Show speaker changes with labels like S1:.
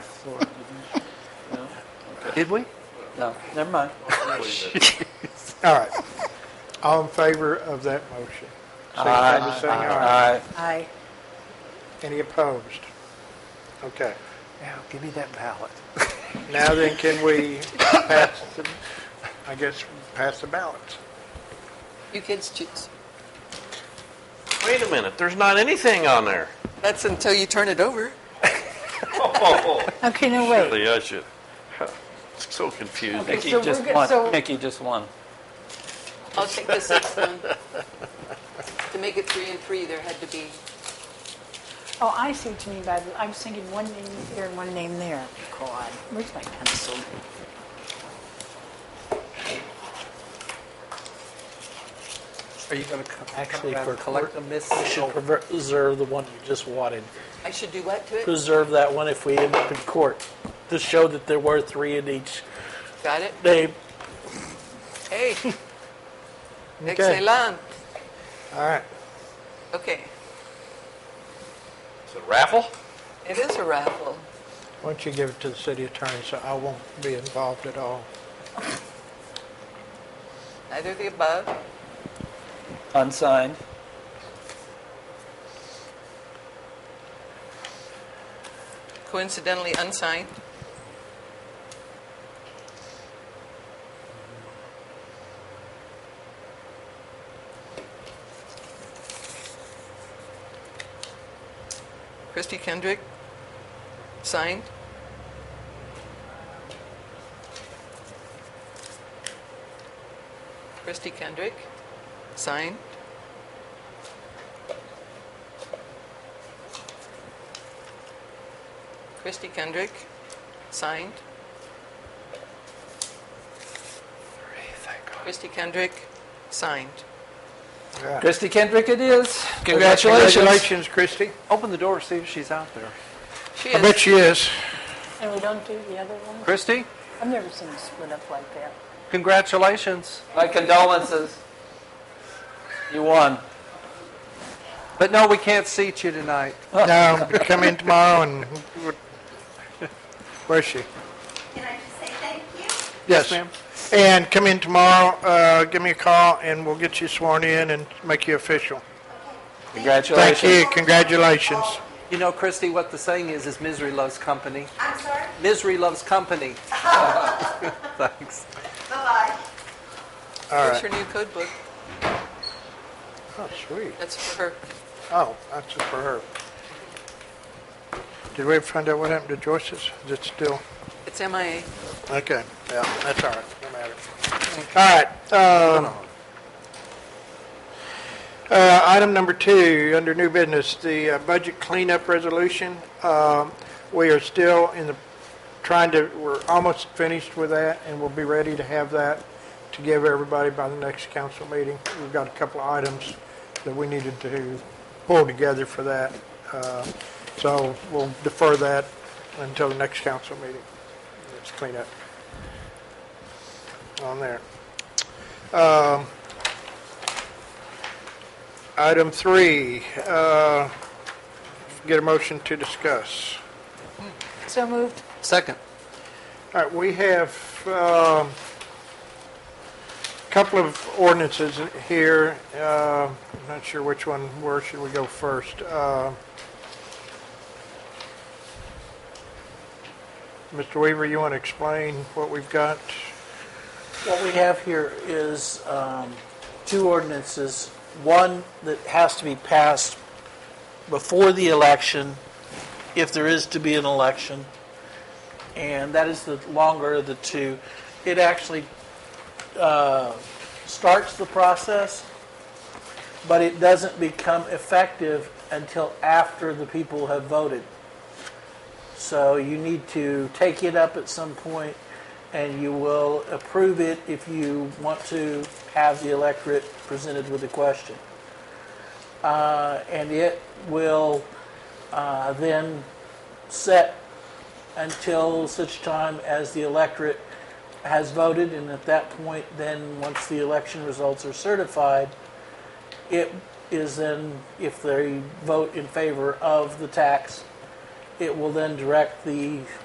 S1: Did we? No, never mind.
S2: All right. All in favor of that motion? Signify by saying aye.
S1: Aye.
S3: Aye.
S2: Any opposed? Okay.
S1: Now, give me that ballot.
S2: Now then, can we pass, the? I guess, pass the ballots?
S3: You kids choose.
S4: Wait a minute, there's not anything on there.
S3: That's until you turn it over.
S5: Okay, no, wait.
S4: Really, Oh, I should. It's so confusing.
S1: Nikki
S5: so we're
S1: just
S5: good- so-
S1: won. Nikki just won.
S6: I'll take the sixth one. To make it three and three, there had to be,
S5: Oh, I see what you mean by that. I was thinking one name here and one name there. God, where's my pencil?
S7: Are you going to
S8: Actually,
S7: actually
S8: for collect
S7: collect them?
S8: you should preserve the one you just wanted.
S6: I should do what to it?
S8: Preserve that one if we end up in court, to show that there were three in each
S6: Got it?
S8: name.
S6: Hey,
S2: Okay.
S6: excellent.
S2: All right.
S6: Okay,
S4: It's a raffle?
S6: it is a raffle.
S2: Why don't you give it to the city attorney so I won't be involved at all?
S6: Neither the above.
S1: Unsigned.
S6: coincidentally unsigned. Christy Kendrick, signed. Christy Kendrick, signed. Christy Kendrick, signed. Christy Kendrick, signed.
S1: Christy Kendrick it is.
S2: Congratulations, Christie.
S1: Open the door, see if she's out there.
S6: She
S2: I bet
S6: is,
S2: she is.
S5: And we don't do the other one?
S1: Christy,
S5: I've never seen it split up like that.
S1: congratulations. My condolences. You won.
S7: But no, we can't seat you tonight.
S2: No, come in tomorrow and, where's she?
S9: Can I just say thank you?
S2: Yes, ma'am. And come in tomorrow, uh, give me a call, and we'll get you sworn in and make you official.
S1: Congratulations.
S2: Thank you, congratulations.
S7: You know, Christy, what the saying is, is misery loves company.
S9: I'm sorry?
S7: Misery loves company. Thanks.
S2: All
S9: Bye-bye.
S6: here's
S2: right.
S6: her new code book.
S2: Oh, sweet.
S6: That's for her.
S2: Oh, that's just for her. Did we ever find out what happened to Joyce's? Is it still?
S6: It's MIA.
S2: Okay, yeah, that's all right, no matter. All right, um, uh, item number two, under new business, the uh, budget cleanup resolution. Um, We are still in the, trying to, we're almost finished with that, and we'll be ready to have that to give everybody by the next council meeting. We've got a couple of items that we needed to pull together for that. Uh, So we'll defer that until the next council meeting. Let's clean up on there. Um, Item three, uh, get a motion to discuss.
S5: So moved.
S7: Second.
S2: All right, we have um, a couple of ordinances here. Uh, I'm not sure which one, where should we go first? Uh, Mr. Weaver, you want to explain what we've got?
S8: What we have here is um, two ordinances, one that has to be passed before the election, if there is to be an election, and that is the longer of the two. It actually uh, starts the process, but it doesn't become effective until after the people have voted. So you need to take it up at some point, and you will approve it if you want to have the electorate presented with a question. Uh, and it will uh, then set until such time as the electorate has voted, and at that point, then once the election results are certified, it is then, if they vote in favor of the tax, it will then direct the